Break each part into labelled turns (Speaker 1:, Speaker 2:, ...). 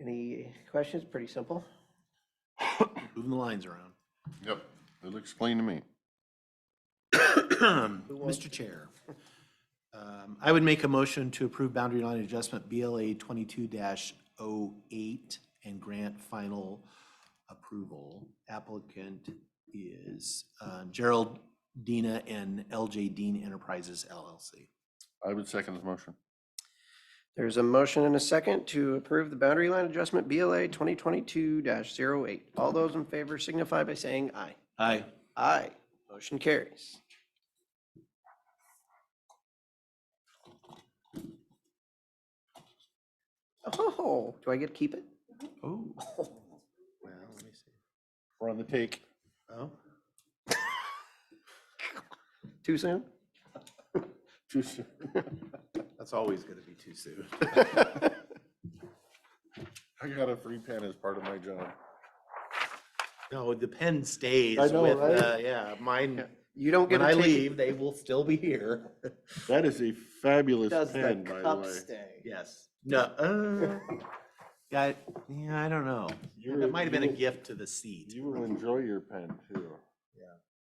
Speaker 1: Any questions? Pretty simple.
Speaker 2: Moving the lines around.
Speaker 3: Yep, it'll explain to me.
Speaker 2: Mr. Chair, um, I would make a motion to approve boundary line adjustment BLA twenty-two 8 and grant final approval. Applicant is uh, Gerald Dina and LJ Dean Enterprises LLC.
Speaker 3: I would second his motion.
Speaker 1: There's a motion and a second to approve the boundary line adjustment BLA 2022-08. All those in favor signify by saying aye.
Speaker 2: Aye.
Speaker 1: Aye. Motion carries. Oh, do I get to keep it?
Speaker 2: Oh.
Speaker 3: We're on the take.
Speaker 2: Oh,
Speaker 1: Too soon?
Speaker 3: Too soon.
Speaker 2: that's always going to be too soon.
Speaker 3: I got a free pen as part of my job.
Speaker 2: No, the pen stays
Speaker 3: I know,
Speaker 2: with,
Speaker 3: right?
Speaker 2: uh, yeah, mine,
Speaker 1: You don't get to
Speaker 2: when I
Speaker 1: take it.
Speaker 2: leave, they will still be here.
Speaker 3: That is a fabulous
Speaker 1: Does the
Speaker 3: pen, by the
Speaker 1: cup
Speaker 3: way.
Speaker 1: stay?
Speaker 2: Yes. No, uh, yeah, yeah, I don't know.
Speaker 3: You're-
Speaker 2: That might have been a
Speaker 3: you-
Speaker 2: gift to the seat.
Speaker 3: You will enjoy your pen too.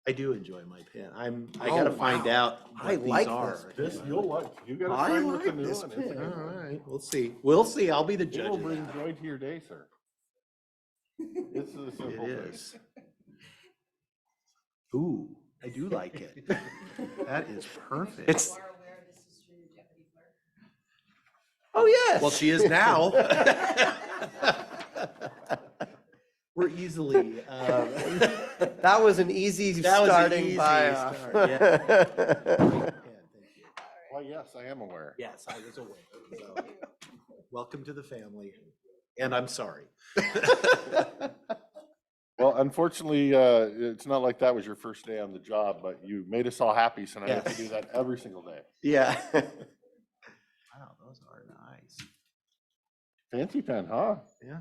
Speaker 2: I do enjoy my pen. I'm, I gotta
Speaker 1: Oh,
Speaker 2: find
Speaker 1: wow.
Speaker 2: out
Speaker 1: I
Speaker 2: what these
Speaker 1: like
Speaker 2: are.
Speaker 1: this
Speaker 3: This, you'll like, you gotta
Speaker 1: I
Speaker 3: find what the
Speaker 1: like
Speaker 3: new
Speaker 1: this
Speaker 3: one is.
Speaker 1: pen.
Speaker 2: All right, we'll see. We'll see. I'll be the
Speaker 3: It
Speaker 2: judge
Speaker 3: will
Speaker 2: of
Speaker 3: bring
Speaker 2: that.
Speaker 3: joy to your day, sir. This is a
Speaker 2: It
Speaker 3: simple thing.
Speaker 2: is. Ooh, I do like it. That is perfect.
Speaker 4: You are aware this is through the deputy clerk?
Speaker 1: Oh, yes.
Speaker 2: Well, she is now. We're easily, uh, um,
Speaker 1: That was an easy
Speaker 2: That was an
Speaker 1: starting uh,
Speaker 2: easy
Speaker 1: buy
Speaker 2: start, yeah, thank you.
Speaker 3: Well, yes, I am aware.
Speaker 2: Yes, I was aware. so, Welcome to the family, and I'm sorry.
Speaker 3: Well, unfortunately, uh, it's not like that was your first day on the job, but you made us all happy, so now you have to do
Speaker 2: Yes.
Speaker 3: that every single day.
Speaker 1: Yeah.
Speaker 2: Wow, those are nice.
Speaker 3: Fancy pen, huh?
Speaker 2: Yeah.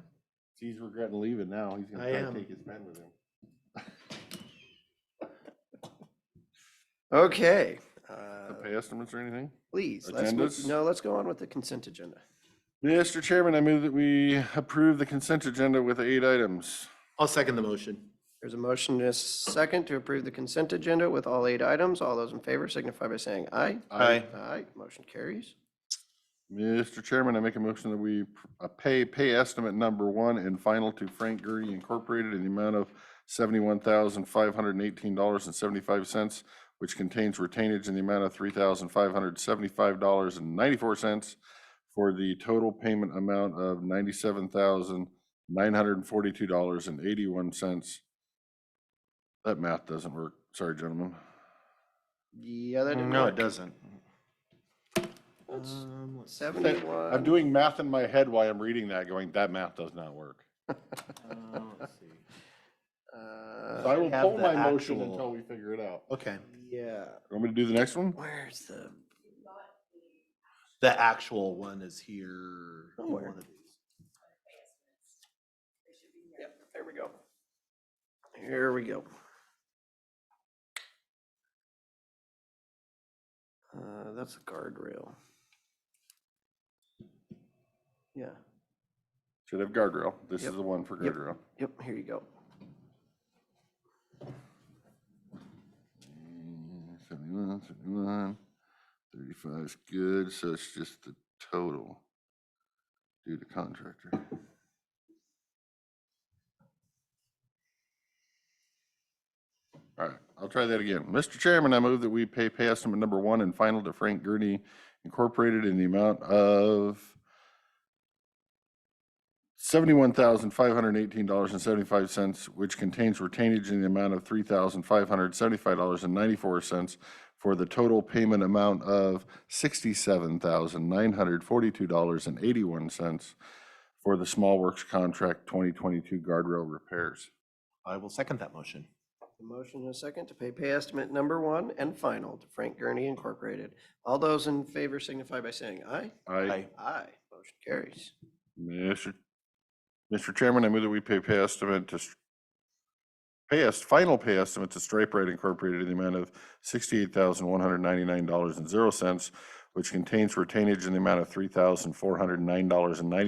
Speaker 3: He's regretting leaving now. He's gonna
Speaker 2: I
Speaker 3: try to
Speaker 2: am.
Speaker 3: take his pen with him.
Speaker 1: Okay.
Speaker 3: The
Speaker 1: uh,
Speaker 3: pay estimates or anything?
Speaker 1: Please, let's, move-
Speaker 3: Agendas?
Speaker 1: no, let's go on with the consent agenda.
Speaker 3: Mr. Chairman, I move that we approve the consent agenda with eight items.
Speaker 2: I'll second the motion.
Speaker 1: There's a motion and a second to approve the consent agenda with all eight items. All those in favor signify by saying aye.
Speaker 2: Aye.
Speaker 1: Aye, motion carries.
Speaker 3: Mr. Chairman, I make a motion that we pr- uh, pay pay estimate number one and final to Frank Gurney Incorporated in the amount of seventy-one thousand five hundred and eighteen dollars and seventy-five cents, which contains retainage in the amount of three thousand five hundred seventy-five dollars and ninety-four cents for the total payment amount of ninety-seven thousand nine hundred and forty-two dollars and eighty-one cents. That math doesn't work. Sorry, gentlemen.
Speaker 1: Yeah, that didn't
Speaker 2: No, it
Speaker 1: work.
Speaker 2: doesn't.
Speaker 1: That's
Speaker 2: Um, let's-
Speaker 3: I'm
Speaker 1: 71.
Speaker 3: doing math in my head while I'm reading that, going, that math does not work.
Speaker 2: uh, let's see.
Speaker 3: So I
Speaker 1: Uh,
Speaker 3: will
Speaker 2: have
Speaker 3: pull
Speaker 2: the
Speaker 3: my motion
Speaker 2: actual-
Speaker 3: until we figure it out.
Speaker 2: Okay,
Speaker 1: Yeah,
Speaker 3: Want me to do the next one?
Speaker 1: where's the,
Speaker 2: the actual one is here. in
Speaker 1: Somewhere.
Speaker 2: one of these.
Speaker 4: They should be here.
Speaker 1: yep, there we go. Here we go. Uh, That's a guardrail. Yeah,
Speaker 3: Should have guardrail. This
Speaker 1: Yep.
Speaker 3: is the one for
Speaker 1: Yep.
Speaker 3: guardrail.
Speaker 1: yep, here you go.
Speaker 3: Mm, 71, 71, 35 is good, so it's just the total due to contractor. All right, I'll try that again. Mr. Chairman, I move that we pay pay estimate number one and final to Frank Gurney Incorporated in the amount of seventy-one thousand five hundred eighteen dollars and seventy-five cents, which contains retainage in the amount of three thousand five hundred seventy-five dollars and ninety-four cents for the total payment amount of sixty-seven thousand nine hundred forty-two dollars and eighty-one cents for the Small Works Contract twenty twenty-two guardrail repairs.
Speaker 2: I will second that motion.
Speaker 1: A motion and a second to pay pay estimate number one and final to Frank Gurney Incorporated. All those in favor signify by saying aye.
Speaker 3: Aye.
Speaker 2: Aye.
Speaker 1: Aye. Motion carries.
Speaker 3: Mr. Mr. Chairman, I move that we pay pay estimate to, Str- pay est, final pay estimate to Stripe Rite Incorporated in the amount of sixty-eight thousand one hundred ninety-nine dollars and zero cents, which contains retainage in the amount of three thousand four hundred nine dollars and ninety